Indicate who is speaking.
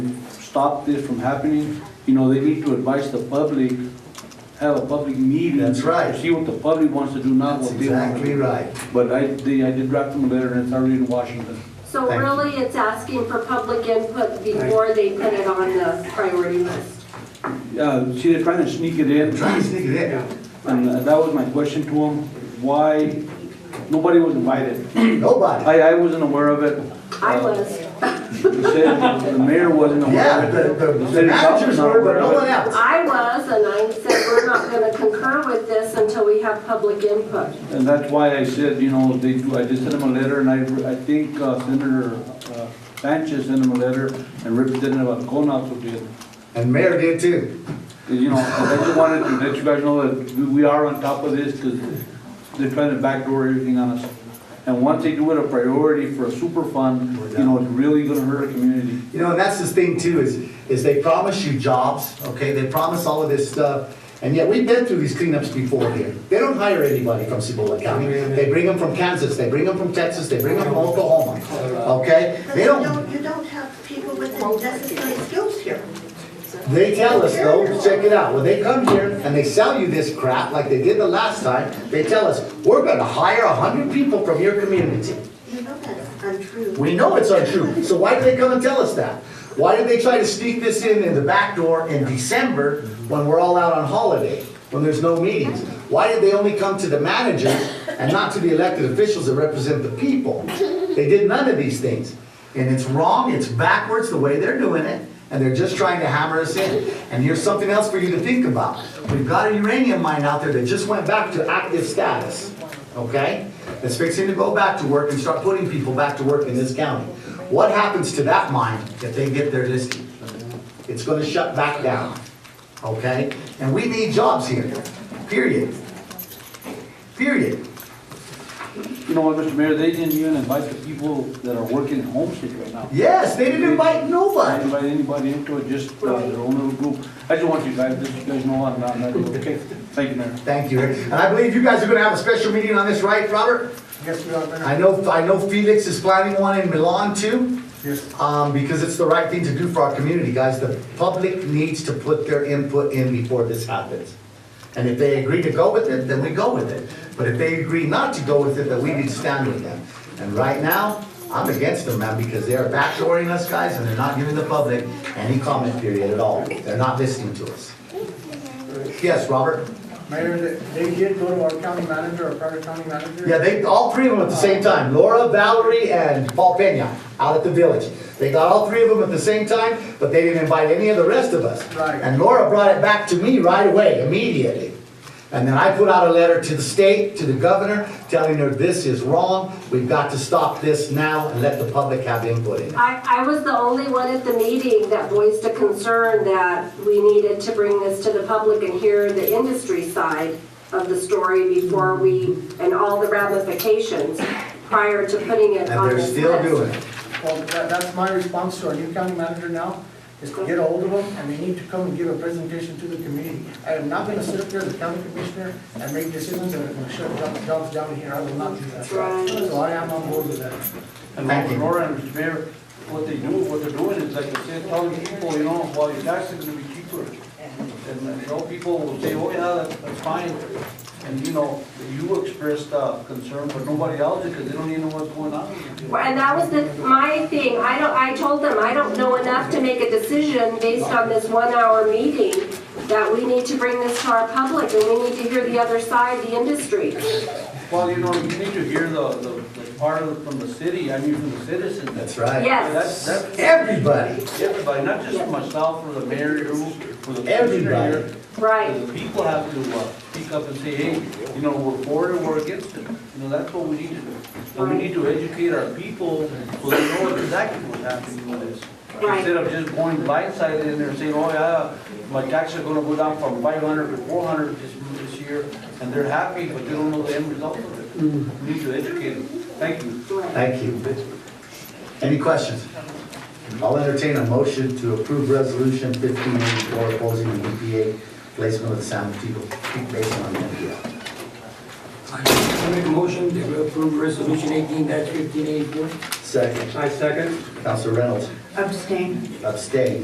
Speaker 1: stop this from happening, you know, they need to advise the public, have a public meeting.
Speaker 2: That's right.
Speaker 1: See what the public wants to do, not
Speaker 2: That's
Speaker 1: what they want to
Speaker 2: exactly
Speaker 1: do.
Speaker 2: right.
Speaker 1: But I, they, I did draft them a letter and it's already in Washington.
Speaker 3: So
Speaker 2: Thank you.
Speaker 3: really, it's asking for public input before they put it on the priority list.
Speaker 1: Yeah, see, they're trying to sneak it in.
Speaker 2: Try to sneak it in.
Speaker 1: And uh, that was my question to him, why, nobody was invited.
Speaker 2: Nobody.
Speaker 1: I, I wasn't aware of it.
Speaker 3: I
Speaker 1: Uh,
Speaker 3: was,
Speaker 1: The city- the mayor wasn't aware
Speaker 2: Yeah,
Speaker 1: of it.
Speaker 2: the, the- the
Speaker 1: city council's
Speaker 2: managers
Speaker 1: not
Speaker 2: were, but
Speaker 1: aware
Speaker 2: no
Speaker 1: of it.
Speaker 2: one else.
Speaker 3: I was, and I said, we're not gonna concur with this until we have public input.
Speaker 1: And that's why I said, you know, they, I just sent him a letter, and I, I think uh, Senator uh, Sanchez sent him a letter, and Representative Alcona also did.
Speaker 2: And mayor did too.
Speaker 1: You know, I just wanted to let you guys know that we- we are on top of this, because they're trying to backdoor everything on us. And once they do it a priority for a super fund, you know, it's really gonna hurt a community.
Speaker 2: You know, and that's the thing too, is, is they promise you jobs, okay? They promise all of this stuff. And yet, we've been through these cleanups before here. They don't hire anybody from Cibola County. They bring them from Kansas, they bring them from Texas, they bring them from Oklahoma, okay?
Speaker 4: But
Speaker 2: They
Speaker 4: you
Speaker 2: don't,
Speaker 4: don't, you don't have people with the necessary skills here.
Speaker 2: They tell us though, check it out, when they come here and they sell you this crap like they did the last time, they tell us, we're gonna hire a hundred people from your community.
Speaker 4: You know that's untrue.
Speaker 2: We know it's untrue, so why do they come and tell us that? Why did they try to sneak this in in the back door in December when we're all out on holiday, when there's no meetings? Why did they only come to the managers and not to the elected officials that represent the people? They did none of these things. And it's wrong, it's backwards the way they're doing it, and they're just trying to hammer us in. And here's something else for you to think about. We've got a uranium mine out there that just went back to active status, okay? It's fixing to go back to work and start putting people back to work in this county. What happens to that mine if they get their listing? It's gonna shut back down, okay? And we need jobs here, period. Period.
Speaker 1: You know what, Mr. Mayor, they didn't even invite the people that are working in Homestead right now.
Speaker 2: Yes, they didn't invite
Speaker 1: I
Speaker 2: nobody.
Speaker 1: didn't invite anybody into it, just uh, their own little group. I just want you guys, just you guys know I'm not, I'm not- okay? Thank you, Mayor.
Speaker 2: Thank you, Rick. And I believe you guys are gonna have a special meeting on this, right, Robert?
Speaker 5: Yes, we are, Mayor.
Speaker 2: I know, I know Felix is planning one in Milan too,
Speaker 5: Yes,
Speaker 2: um, because it's the right thing to do for our community, guys. The public needs to put their input in before this happens. And if they agree to go with it, then we go with it. But if they agree not to go with it, then we need to stand with them. And right now, I'm against them, man, because they are backdooring us, guys, and they're not giving the public any comment period at all. They're not listening to us. Yes, Robert?
Speaker 5: Mayor, they- they did go to our county manager, our prior county manager.
Speaker 2: Yeah, they, all three of them at the same time, Laura, Valerie, and Paul Peña, out at the village. They got all three of them at the same time, but they didn't invite any of the rest of us.
Speaker 5: Right.
Speaker 2: And Laura brought it back to me right away, immediately. And then I put out a letter to the state, to the governor, telling her this is wrong, we've got to stop this now and let the public have input in it.
Speaker 3: I, I was the only one at the meeting that voiced a concern that we needed to bring this to the public and hear the industry side of the story before we, and all the ramifications prior to putting it
Speaker 2: And
Speaker 3: on
Speaker 2: they're
Speaker 3: this
Speaker 2: still
Speaker 3: list.
Speaker 2: doing it.
Speaker 5: Well, that, that's my response to our new county manager now, is to get a hold of them, and they need to come and give a presentation to the community. I am not gonna sit up here as a county commissioner and make decisions that are gonna shut job- jobs down here, I will not do that.
Speaker 3: Right.
Speaker 5: So I am on board with that.
Speaker 1: And
Speaker 2: Thank you.
Speaker 1: Nora and Mr. Mayor, what they do, what they're doing is like I said, telling people, you know, well, your taxes are gonna be cheaper. And, uh, you know, people will say, oh, yeah, that- that's fine. And, you know, you expressed, uh, concern, but nobody else, because they don't even know what's going on.
Speaker 3: Well, And that was the, my thing, I don't, I told them, I don't know enough to make a decision based on this one-hour meeting, that we need to bring this to our public, and we need to hear the other side, the industry.
Speaker 1: Well, you know, you need to hear the, the, the part of, from the city, I mean, from the citizens.
Speaker 2: That's right.
Speaker 3: Yes,
Speaker 1: That's, that's
Speaker 2: Everybody,
Speaker 1: everybody, not just for myself, for the mayor, for the commissioner
Speaker 2: Everybody.
Speaker 1: here.
Speaker 3: right.
Speaker 1: The people have to uh, speak up and say, hey, you know, we're for it or we're against it. You know, that's what we need to do. And we need to educate our people so they know exactly what's happening with this.
Speaker 3: Right.
Speaker 1: Instead of just going blindsided in there saying, oh yeah, my taxes are gonna go down from five hundred to four hundred this, this year, and they're happy, but they don't know the end result of it. We need to educate them. Thank you.
Speaker 2: thank you. Any questions? I'll entertain a motion to approve resolution fifteen eighty-four opposing the EPA placement of the San Mateo Creek Basin on the E NPL.
Speaker 6: I make a motion to approve resolution eighteen dash fifteen eighty-four.
Speaker 2: Second,
Speaker 7: I second.
Speaker 2: Council Reynolds
Speaker 4: Abstain.
Speaker 2: abstain.